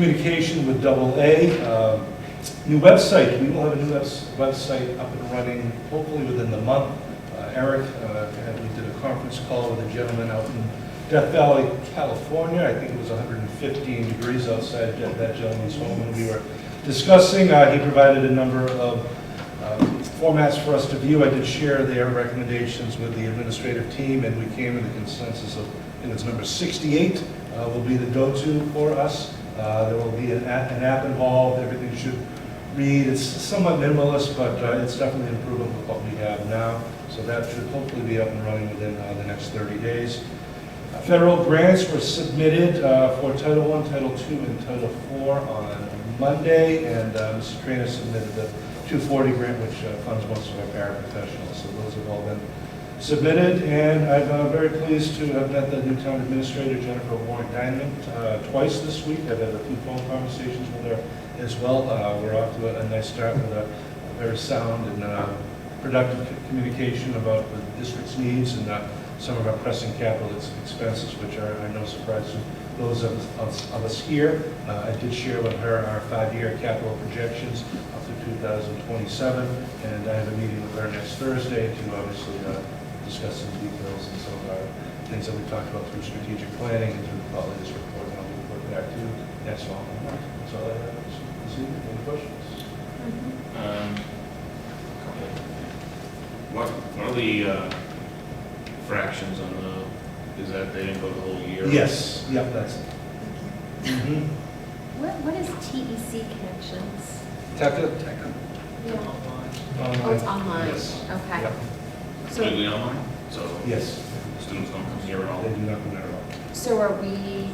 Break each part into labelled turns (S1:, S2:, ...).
S1: Communication with Double A, um, new website, we will have a new webs- website up and running hopefully within the month. Uh, Eric, uh, and we did a conference call with a gentleman out in Death Valley, California, I think it was 115 degrees outside that that gentleman's home, and we were discussing, uh, he provided a number of um, formats for us to view. I did share their recommendations with the administrative team, and we came to the consensus of, I think it's number 68 uh, will be the go-to for us. Uh, There will be an app an app involved, everything should read, it's somewhat minimalist, but uh, it's definitely an improvement with what we have now, so that should hopefully be up and running within uh, the next 30 days. Federal grants were submitted uh, for Title I, Title II, and Title IV on Monday, and uh, Mr. Trainer submitted the 240 grant, which uh, funds most of our paraprofessionals, so those have all been submitted, and I'm uh, very pleased to have met the new town administrator, Jennifer Warren Diamond, uh, twice this week. I've had a few phone conversations with her as well. Uh, We're off to a- a nice start with a a very sound and uh, productive c- communication about the district's needs and uh, some of our pressing capital ex- expenses, which are, are no surprise to those of us- of us here. Uh, I did share with her our five-year capital projections up to 2027, and I have a meeting with her next Thursday to obviously uh, discuss some details and some of our things that we talked about through strategic planning and through probably this report, and I'll report back to you next fall. That's all I have this evening. Any questions?
S2: Um, couple. What, what are the uh, fractions on the, is that they didn't go the whole year?
S1: Yes, yep, that's it. Mhm.
S3: What, what is TEC Connections?
S1: Tekka? Tekka.
S3: Oh, it's online,
S1: Yes.
S3: okay.
S1: Yep.
S3: So,
S2: Completely online? So
S1: Yes,
S2: students don't come here at all?
S1: they do not come at all.
S3: so are we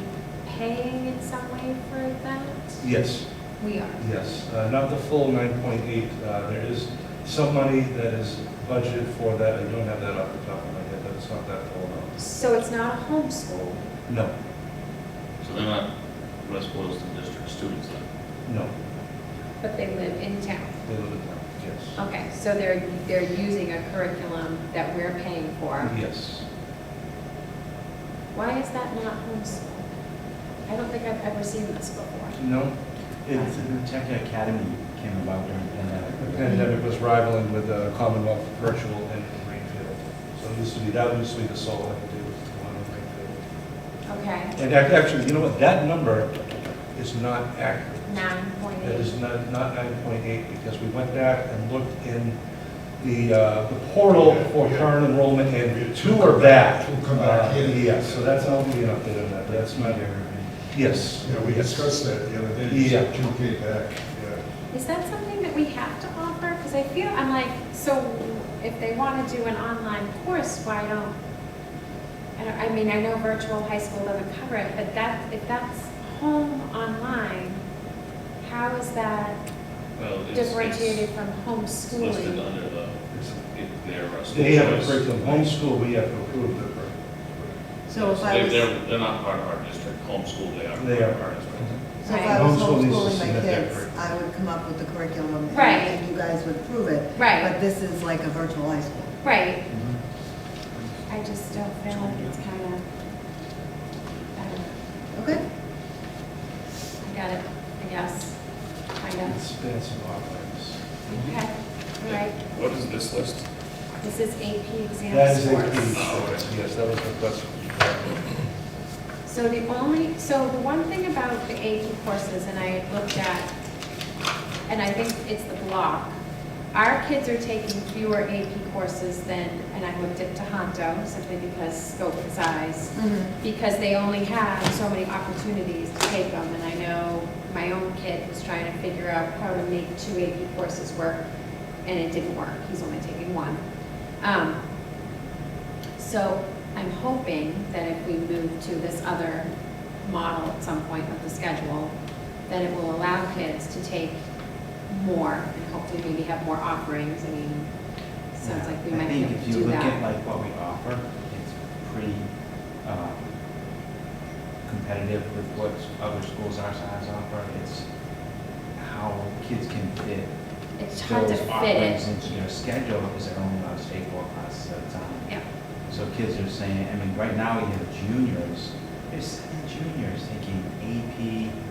S3: paying in some way for that?
S1: Yes,
S3: We are.
S1: yes, Uh, not the full 9.8. Uh, There is some money that is budgeted for that. I don't have that off the top of my head, but it's not that full amount.
S3: So it's not a homeschool?
S1: No,
S2: So they're not West Boylston District students then?
S1: no,
S3: But they live in town.
S1: they live in town, yes.
S3: Okay, so they're, they're using a curriculum that we're paying for.
S1: Yes.
S3: Why is that not homeschool? I don't think I've ever seen this before.
S1: No,
S4: It's
S1: it's,
S4: the Tech Academy came about during the
S1: the
S4: pandemic.
S1: pandemic was rivaling with the Commonwealth Virtual in Greenfield. So it used to be, that used to be the sole one to do with the one in Greenfield.
S3: Okay,
S1: And ac- actually, you know what, that number is not accurate.
S3: nine point
S1: That
S3: eight.
S1: is not, not nine point eight, because we went back and looked in the, uh, the portal for current enrollment, and two are back.
S5: Two come back, yeah.
S1: Uh, Yeah, so that's, I'll be an update on that, but that's not accurate. Yes.
S5: Yeah, we
S1: yes.
S5: discussed that the other day, you said you came back,
S3: Is that something that we have to offer? Because I feel, I'm like, so if they want to do an online course, why don't, I don't, I mean, I know virtual high school doesn't cover it, but that, if that's home online, how is that
S2: Well, it's- it's
S3: differentiated from
S2: Listed
S3: homeschooling?
S2: under the, it- their uh, school
S1: They have a
S2: choice.
S1: curriculum, homeschool, we have to approve the curriculum.
S6: So if I
S2: They-
S6: was,
S2: They're, they're not part of our district, homeschool they are.
S1: They are.
S2: part of our district.
S6: so if I was
S1: Homeschool needs to
S6: homeschooling my
S1: submit that
S6: kids,
S1: curriculum.
S6: I would come up with the curriculum. and-
S3: Right.
S6: And you guys would approve it.
S3: Right.
S6: But this is like a virtual high school.
S3: Right. I just don't feel like it's kind of, I don't know,
S6: Okay?
S3: I got it, I guess, kind of.
S1: Expansive offerings.
S3: Okay, all right,
S2: What is this list?
S3: this is AP exam
S1: That is a
S3: scores.
S1: key source, yes, that was the question.
S3: So the only, so the one thing about the AP courses, and I looked at, and I think it's the block, our kids are taking fewer AP courses than, and I looked at Tohoto, simply because scope and size, because they only have so many opportunities to take them. And I know my own kid was trying to figure out how to make two AP courses work, and it didn't work. He's only taking one. Um, So I'm hoping that if we move to this other model at some point of the schedule, that it will allow kids to take more and hopefully maybe have more offerings. I mean, sounds like we
S4: I
S3: might be
S4: think
S3: able to
S4: if you
S3: do
S4: look at
S3: that.
S4: like what we offer, it's pretty um, competitive with what other schools our size offer. It's how kids can fit
S3: It's hard to
S4: those
S3: fit
S4: offerings
S3: it.
S4: into their schedule because they're only on state four classes at a time.
S3: Yeah.
S4: So kids are saying, I mean, right now we have juniors, there's seven juniors taking AP